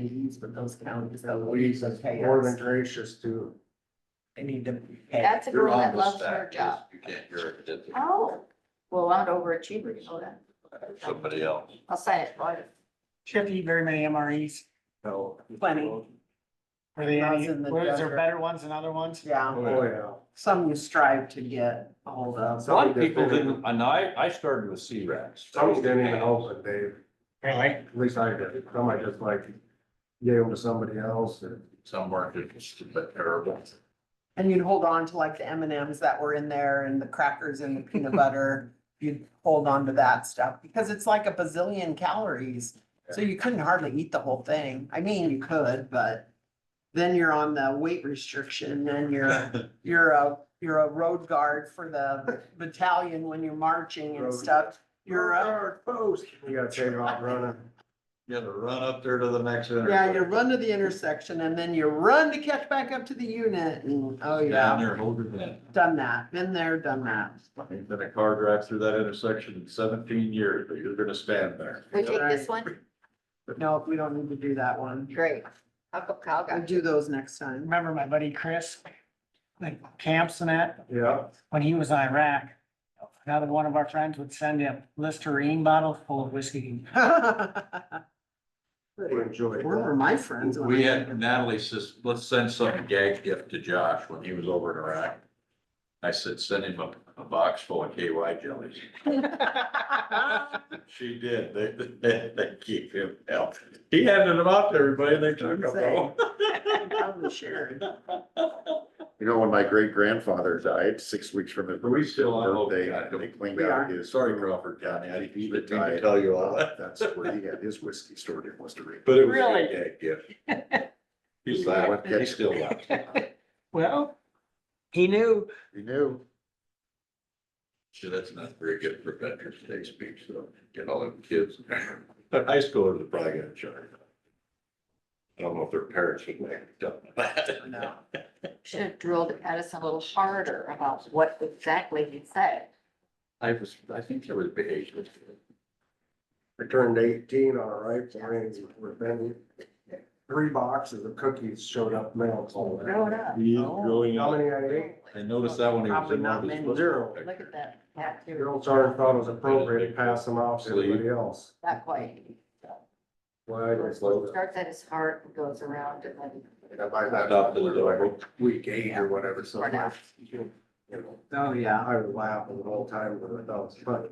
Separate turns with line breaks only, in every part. meetings with those counties. so
Louise is
pay
more than
us.
gracious to,
They need to. pay us.
That's a
You're
girl
on
that
the
loves her
stack,
job.
you can't, you're a dip-
Oh, well, I'm an overachiever, you know that.
somebody else.
I'll say it right.
Should be very many MREs.
no.
Plenty.
Oh,
Are they
Lots
any,
in the
what- is there
desert.
better ones than other ones?
Yeah,
Oh, yeah.
some you strive to get a hold of.
A lot of people didn't, and I, I started with C-Rex.
Some didn't even open, Dave,
Really?
at least I did, some I just like gave them to somebody else and.
Some weren't, but terrible.
And you'd hold on to like the M and Ms that were in there and the crackers and the peanut butter. You'd hold on to that stuff because it's like a bazillion calories. So you couldn't hardly eat the whole thing. I mean, you could, but then you're on the weight restriction and you're, you're a, you're a road guard for the battalion when you're marching and
Road.
stuff. You're a
our post. You gotta take off running.
You had to run up there to the next.
Yeah, you run to the intersection and then you run to catch back up to the unit and, oh
Down
yeah,
there, hold your hand.
done that, been there, done that.
Ain't been a car drive through that intersection in seventeen years, but you're gonna stand there.
We take this one,
No, we don't need to do that one.
great. Uncle Cal
We'll
got
do those next time.
Remember my buddy Chris? Like camps and that,
Yeah,
when he was in Iraq. Another one of our friends would send him Listerine bottles full of whiskey.
we enjoyed
Where were
that.
my friends? when
We
I-
had Natalie says, let's send some gag gift to Josh when he was over in Iraq. I said, send him a, a box full of KY jellies. She did. They, they, they keep him out. He handed them out to everybody and they took them home.
Probably shared.
You know, when my great grandfather died, six weeks from his
Are we still on? Oh,
birthday,
God,
they cleaned
we
out
are.
his.
Sorry, Crawford County. I didn't
He
mean to
retired.
tell you all that,
That's where he had his whiskey stored in West Rica.
but it was a
Really?
good gag gift. He's laughing. He's still laughing.
Well, he knew.
He knew.
Sure, that's not very good for Veterans Day speech, so get all them kids. But high schoolers are probably gonna charge. I don't know if their parents would make it up.
No.
Should have drilled at us a little harder about what exactly he said.
I was, I think there was behavior.
I turned eighteen on a right plane, we're bending. Three boxes of cookies showed up mailed. all that.
Grow it up.
He's
Oh.
growing
How
up.
many I ate?
I noticed that when he was
Probably
in
not
one of his.
many.
football
Zero.
pictures.
Look at that tattoo,
Your old sergeant thought it was appropriate to pass them off to everybody else.
not quite.
Why? I just love that.
Starts at his heart and goes around and then.
And I buy that
Adopted a
like
dog.
week eight or whatever, so.
Or not.
You know,
Oh, yeah.
I was laughing the whole time, but I thought it was funny.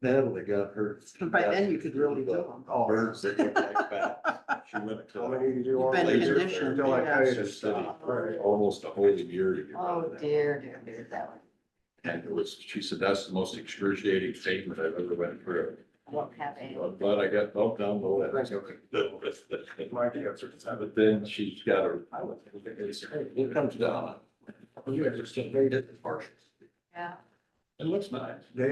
Natalie got her.
But By then you could really do them.
Oh,
Birds that look like that. She went
How
to
many did you
You've
want?
been
laser
conditioned,
Until I
yeah.
tell you
Laser
to
City,
stop. Right.
almost a whole year to get out
Oh
of that.
dear, dear, dear, that one,
And it was, she said, that's the most excruciating statement I've ever went through.
I don't have any.
I'm glad I got bumped down the
Thanks,
list.
okay. My answer is that.
But then she's got her, I would think it's, it comes down. You understand, they did the partials.
Yeah.
It looks nice.
They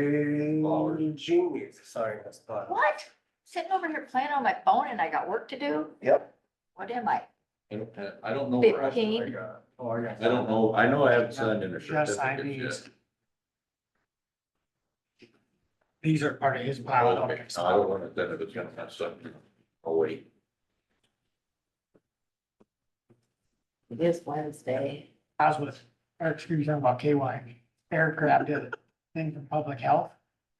genius assigned us, but.
What? Sitting over here playing on my phone and I got work to do?
Yep.
What am I?
I don't, have- I don't know. where I-
Fifteen.
I got- Oh, I got.
I don't know. I know I haven't signed in a
Yes, I
certificate
mean,
yet.
these are part of his
Oh, I
pile.
don't want it, then if it's gonna have something, oh wait.
It is Wednesday.
I was with, or excuse me, talking about KY. Eric grabbed a thing from public health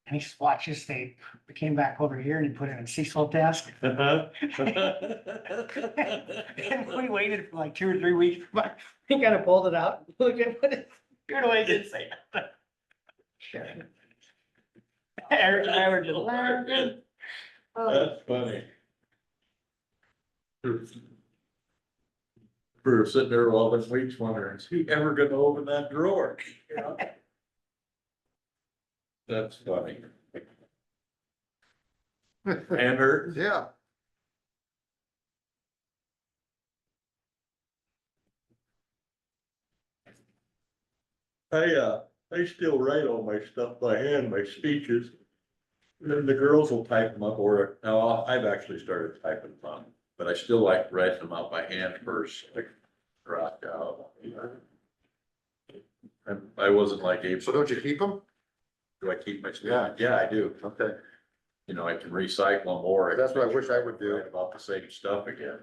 and he just watched his tape. We came back over here and he put it in Cecil desk. And we waited for like two or three weeks, but he kind of pulled it out, looked at, put it, turned away, didn't say nothing. Eric and I were just laughing.
Oh,
That's funny. We were sitting there all this week wondering, is he ever gonna open that drawer? That's funny. And her,
Yeah.
I, uh, I still write all my stuff by hand, my speeches. Then the girls will type them up or, no, I've actually started typing them up, but I still like to write them out by hand first, like, uh, rock out. And I wasn't like Abe,
So don't you keep them?
do I keep my?
Yeah.
Yeah, I do.
Okay.
You know, I can recycle them or.
That's what I wish I would do.
Write About the same stuff again.